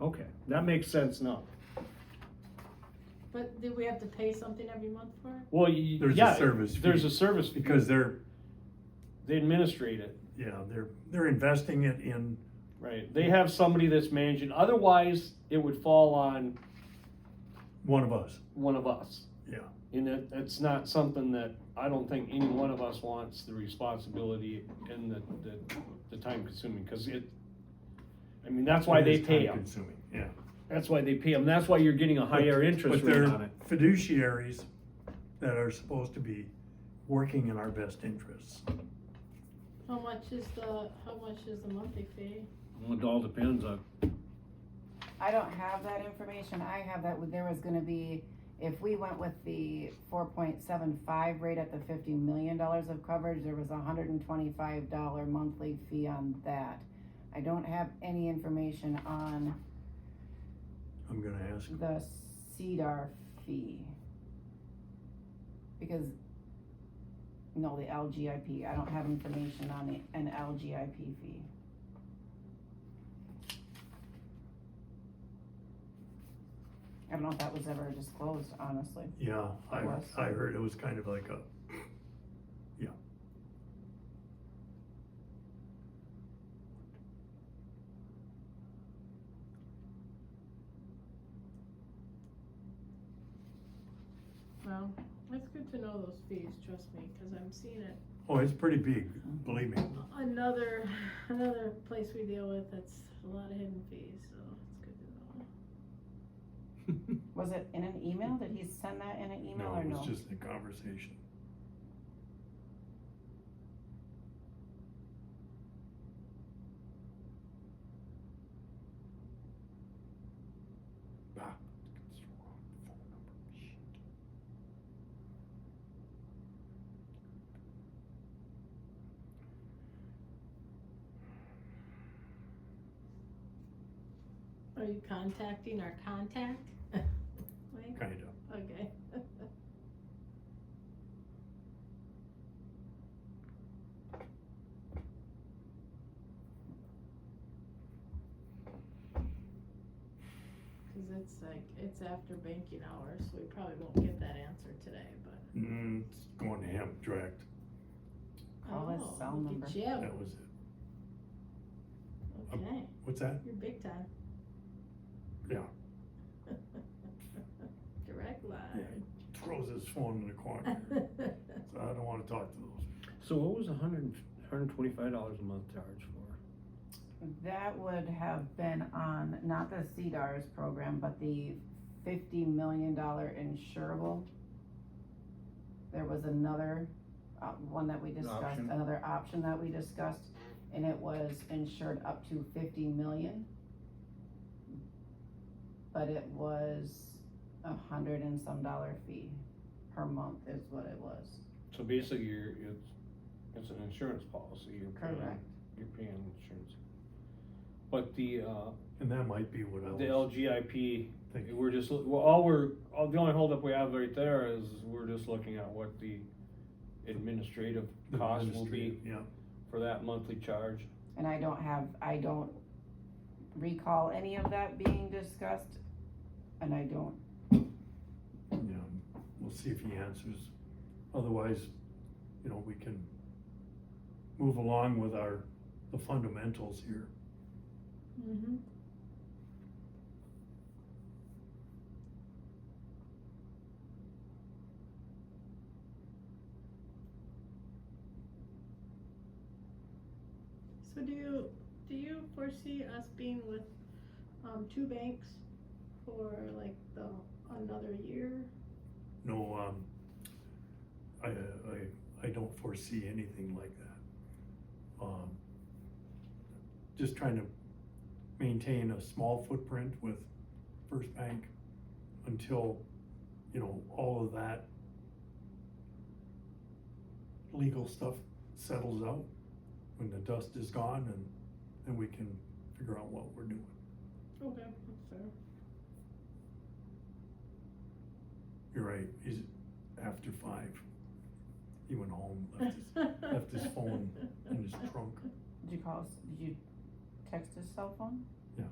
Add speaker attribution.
Speaker 1: Okay, that makes sense now.
Speaker 2: But do we have to pay something every month for it?
Speaker 1: Well, y-
Speaker 3: There's a
Speaker 1: yeah,
Speaker 3: service
Speaker 1: There's
Speaker 3: fee.
Speaker 1: a service fee.
Speaker 3: because they're,
Speaker 1: They administrate it,
Speaker 3: yeah, they're, they're investing it in,
Speaker 1: right? They have somebody that's managing, otherwise it would fall on
Speaker 3: one of us,
Speaker 1: one of us.
Speaker 3: yeah.
Speaker 1: And it, it's not something that, I don't think any one of us wants the responsibility and the, the, the time consuming, cause it, I mean, that's why
Speaker 3: It
Speaker 1: they
Speaker 3: is
Speaker 1: pay
Speaker 3: time
Speaker 1: them.
Speaker 3: Consuming, yeah.
Speaker 1: That's why they pay them. That's why you're getting a higher
Speaker 3: But-
Speaker 1: interest
Speaker 3: but
Speaker 1: rate
Speaker 3: they're
Speaker 1: on it.
Speaker 3: Fiduciaries that are supposed to be working in our best interests.
Speaker 2: How much is the, how much is the monthly fee?
Speaker 1: Well, It all depends on,
Speaker 4: I don't have that information, I have that, there was gonna be, if we went with the four point seven five rate at the fifty million dollars of coverage, there was a hundred and twenty-five dollar monthly fee on that. I don't have any information on
Speaker 3: I'm gonna ask,
Speaker 4: the CDR fee. Because, no, the LGIP, I don't have information on the, an LGIP fee. I don't know if that was ever disclosed, honestly.
Speaker 3: yeah, I,
Speaker 4: Yes.
Speaker 3: I heard it was kind of like a, yeah.
Speaker 2: Well, it's good to know those fees, trust me, cause I'm seeing it.
Speaker 3: Oh, it's pretty big, believe me.
Speaker 2: Another, another place we deal with that's a lot of hidden fees, so it's good to know.
Speaker 4: Was it in an email? Did he send that in an email
Speaker 3: No,
Speaker 4: or
Speaker 3: it
Speaker 4: no?
Speaker 3: was just a conversation. Ah, it's the wrong phone number. Shit.
Speaker 2: Are you contacting our contact? Wait,
Speaker 3: Kinda.
Speaker 2: okay. Cause it's like, it's after banking hours, so we probably won't get that answer today, but.
Speaker 3: Mm, it's going Amtrak,
Speaker 4: Call his
Speaker 2: Oh,
Speaker 4: cell
Speaker 2: look
Speaker 4: number.
Speaker 2: at you.
Speaker 3: that was it.
Speaker 2: okay,
Speaker 3: What's that?
Speaker 2: you're big time.
Speaker 3: Yeah.
Speaker 2: Direct
Speaker 3: Yeah,
Speaker 2: line.
Speaker 3: he throws his phone in the corner. So I don't wanna talk to those.
Speaker 1: so what was a hundred, and- hundred and twenty-five dollars a month charge for?
Speaker 4: That would have been on, not the CDARS program, but the fifty million dollar insurable. There was another, uh, one that we discussed,
Speaker 1: Option.
Speaker 4: another option that we discussed, and it was insured up to fifty million. But it was a hundred and some dollar fee per month is what it was,
Speaker 1: So basically, you're, it's, it's an insurance policy, you're paying,
Speaker 4: correct?
Speaker 1: you're paying insurance. But the, uh,
Speaker 3: And that might be what I
Speaker 1: the
Speaker 3: was
Speaker 1: LGIP
Speaker 3: thinking.
Speaker 1: We're just, well, all we're, all- the only holdup we have right there is we're just looking at what the administrative cost will be
Speaker 3: Administrative, Yeah.
Speaker 1: for that monthly charge.
Speaker 4: And I don't have, I don't recall any of that being discussed, and I don't,
Speaker 3: Yeah, we'll see if he answers. Otherwise, you know, we can move along with our, the fundamentals here.
Speaker 2: Mm-hmm. So do you, do you foresee us being with, um, two banks for like the, another year?
Speaker 3: No, um, I, uh, I, I don't foresee anything like that. Um, just trying to maintain a small footprint with First Bank until, you know, all of that legal stuff settles out, when the dust is gone and then we can figure out what we're doing.
Speaker 2: Okay, that's fair.
Speaker 3: You're right, he's after five. He went home, left his left his phone in his trunk.
Speaker 4: did you call us, did you text his cell phone?
Speaker 3: Yeah.